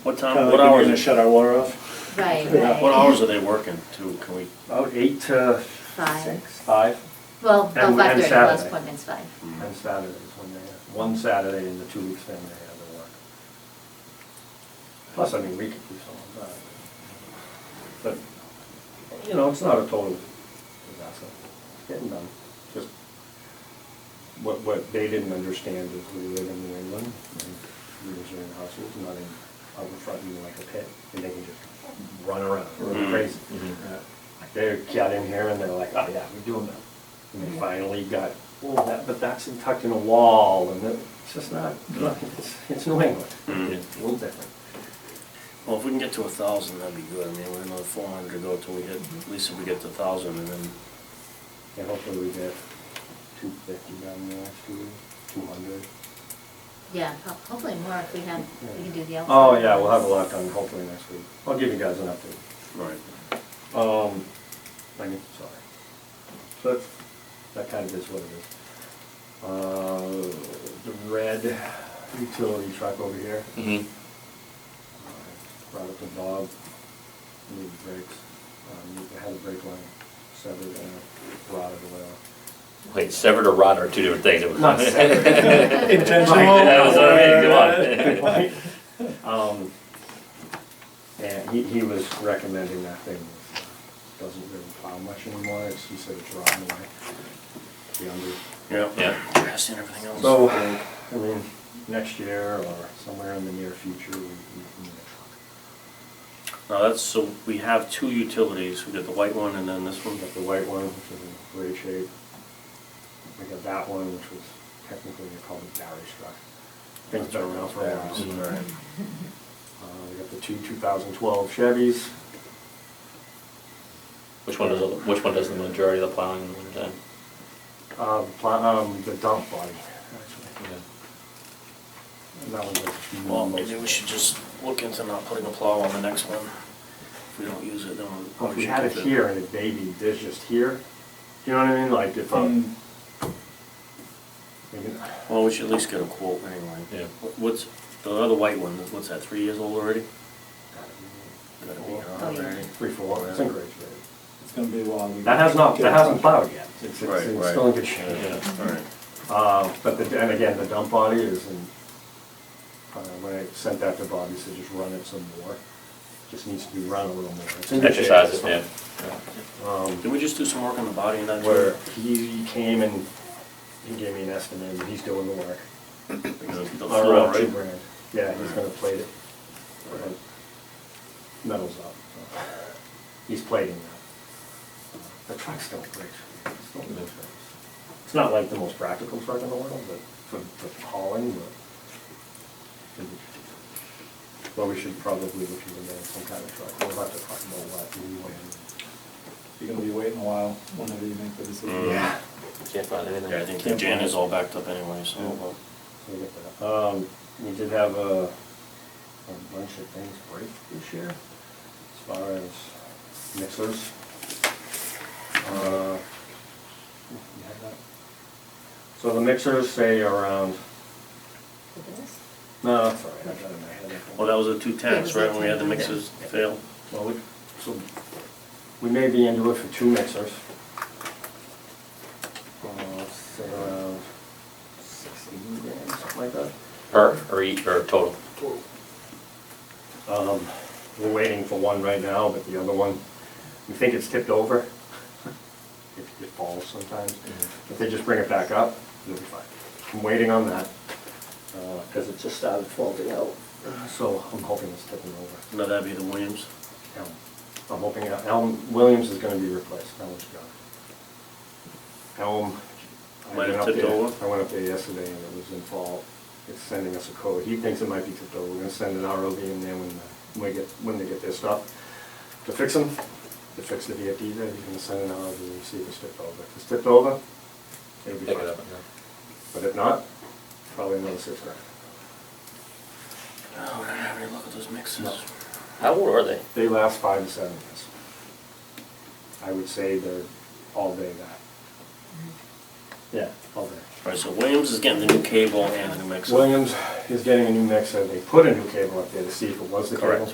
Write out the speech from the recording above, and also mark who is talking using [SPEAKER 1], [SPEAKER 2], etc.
[SPEAKER 1] What
[SPEAKER 2] Kinda
[SPEAKER 1] time,
[SPEAKER 2] like
[SPEAKER 1] what
[SPEAKER 2] when you're gonna
[SPEAKER 1] hours,
[SPEAKER 2] shut our water off?
[SPEAKER 3] Right,
[SPEAKER 2] Yeah.
[SPEAKER 1] what
[SPEAKER 3] right.
[SPEAKER 1] hours are they working to, can we,
[SPEAKER 4] About eight to
[SPEAKER 3] Five.
[SPEAKER 4] five,
[SPEAKER 3] Well,
[SPEAKER 4] And-
[SPEAKER 3] no,
[SPEAKER 4] and
[SPEAKER 3] five thirty, last
[SPEAKER 4] Saturday.
[SPEAKER 3] appointment's five.
[SPEAKER 1] Mm-hmm.
[SPEAKER 4] and Saturdays when they, one Saturday in the two weeks thing they have to work. Plus, I mean, we could do something about it. But, you know, it's not a total disaster, it's getting done, just what, what they didn't understand is we live in New England, and we are in houses, not in, out in front of you like a pit, and they can just run around, run
[SPEAKER 1] Mm-hmm.
[SPEAKER 4] crazy. Mm-hmm. They got in here and they're like, oh yeah, we're doing that. And they finally got, well, that, but that's tucked in a wall and it- it's just not, look, it's, it's New England.
[SPEAKER 1] Mhm.
[SPEAKER 4] It's a little different.
[SPEAKER 1] well, if we can get to a thousand, that'd be good, I mean, we're another four hundred to go till we hit, at least if we get to a thousand and then,
[SPEAKER 4] And hopefully we get two fifty down there, two, two hundred.
[SPEAKER 3] Yeah, ho- hopefully more if we have, we can do the outside.
[SPEAKER 4] Oh yeah, we'll have a lot done hopefully next week. I'll give you guys an update.
[SPEAKER 1] right.
[SPEAKER 4] Um, I mean, sorry. So that's, that kind of is what it is. Uh, the red utility truck over here. uh,
[SPEAKER 1] Mm-hmm.
[SPEAKER 4] Brought up to Bob, needed brakes, um, had a brake line severed and rotted away.
[SPEAKER 5] Wait, severed or rot are two different things.
[SPEAKER 4] Not severed.
[SPEAKER 5] That was what I mean, come on.
[SPEAKER 4] Um, and he, he was recommending that thing, doesn't really plow much anymore, it's, he said it's rotting away. The under,
[SPEAKER 1] Yeah.
[SPEAKER 5] Yeah.
[SPEAKER 1] Grass and everything else.
[SPEAKER 4] so, I mean, next year or somewhere in the near future, we, we need a
[SPEAKER 1] Now, that's, so we have two utilities, we got the white one and then this one,
[SPEAKER 4] truck. We got the white one, which is in great shape. We got that one, which was technically called a battery truck. Things been around for a while.
[SPEAKER 1] All right.
[SPEAKER 4] Uh, we got the two 2012 Chevys.
[SPEAKER 5] Which one does, which one does the majority of the plowing in the wintertime?
[SPEAKER 4] Uh, the pla- um, the dump body, actually. And that one
[SPEAKER 1] Well,
[SPEAKER 4] was-
[SPEAKER 1] maybe we should just look into not putting a plow on the next one. If we don't use it, then we'll.
[SPEAKER 4] Well, if we
[SPEAKER 1] should
[SPEAKER 4] had it
[SPEAKER 1] keep
[SPEAKER 4] here and it baby, this just here, you know what I mean? Like if um, maybe,
[SPEAKER 1] Mm. Well, we should at least get a quote anyway.
[SPEAKER 5] Yeah.
[SPEAKER 1] What- What's, the other white one, what's that, three years old already? Gotta be,
[SPEAKER 4] Four.
[SPEAKER 1] uh,
[SPEAKER 3] Oh, yeah.
[SPEAKER 1] already.
[SPEAKER 4] three, four, it's in great shape.
[SPEAKER 2] It's gonna be a while.
[SPEAKER 4] That has not, that hasn't plowed yet. It's, it's,
[SPEAKER 1] Right,
[SPEAKER 4] it's
[SPEAKER 1] right.
[SPEAKER 4] still in good shape.
[SPEAKER 5] Yeah.
[SPEAKER 1] All right.
[SPEAKER 4] Uh, but the, and again, the dump body is in, uh, when I sent that to Bob, he said just run it some more. Just needs to be run a little more. It's in good shape,
[SPEAKER 5] Exercise
[SPEAKER 4] it's
[SPEAKER 5] it, yeah.
[SPEAKER 4] fine. Um,
[SPEAKER 1] Did we just do some work on the body and that? too?
[SPEAKER 4] where he came and he gave me an estimate, and he's doing the work.
[SPEAKER 1] Because The floor,
[SPEAKER 4] Around two
[SPEAKER 1] right?
[SPEAKER 4] grand. Yeah, he's gonna plate it. Metal's up, so. He's plating that. The truck's still great. It's still good. It's not like the most practical truck in the world, but for, for hauling, but. Well, we should probably look into getting some kind of truck. We'll have to talk about what we want.
[SPEAKER 2] You're gonna be waiting a while whenever you make the decision.
[SPEAKER 4] Yeah.
[SPEAKER 5] Can't find
[SPEAKER 1] Yeah, I
[SPEAKER 5] anything.
[SPEAKER 1] think the Jan is all backed up anyway, so. well,
[SPEAKER 4] So we get that. Um, we did have a, a bunch of things break this year, as far as mixers. Uh, you had that? So the mixers say around,
[SPEAKER 3] Look at this.
[SPEAKER 4] no, that's all right, I got it in my head.
[SPEAKER 1] Well, Oh, that was the two tents, right, when we had the
[SPEAKER 3] Yeah.
[SPEAKER 1] mixes fail?
[SPEAKER 4] Well, we, so, we may be into it for two mixers. Uh, say around sixteen grand, something like that.
[SPEAKER 5] Per or eat or total?
[SPEAKER 4] Um, we're waiting for one right now, but the other one, we think it's tipped over. It, it falls sometimes. If they just bring it back up, it'll be fine. I'm waiting on that, uh, cause it just started folding out. So I'm hoping it's tipping over.
[SPEAKER 1] No, that'd be the Williams.
[SPEAKER 4] Elm, Um, I'm hoping, El- Elm, Williams is gonna be replaced, Elm's gone. Elm. I
[SPEAKER 1] Might have
[SPEAKER 4] went up
[SPEAKER 1] tipped
[SPEAKER 4] there-
[SPEAKER 1] over?
[SPEAKER 4] I went up there yesterday and it was in fault. It's sending us a code. He thinks it might be tipped over. We're gonna send an ROV in there when, the- when we get, when they get their stuff to fix them, to fix the VFD there. He's gonna send an ROV and see if it's tipped over. If it's tipped over, it'll be
[SPEAKER 5] Pick it
[SPEAKER 4] fine.
[SPEAKER 5] up.
[SPEAKER 4] But if not, probably another six grand.
[SPEAKER 1] Oh, we're gonna have a look at those
[SPEAKER 4] No.
[SPEAKER 1] mixes.
[SPEAKER 5] How old are they?
[SPEAKER 4] They last five to seven years. I would say they're all day that. Yeah, all day.
[SPEAKER 1] All right, so Williams is getting the new cable and the new mixer.
[SPEAKER 4] Williams is getting a new mixer, they put a new cable up there to see if it was the
[SPEAKER 1] Correct.
[SPEAKER 4] cable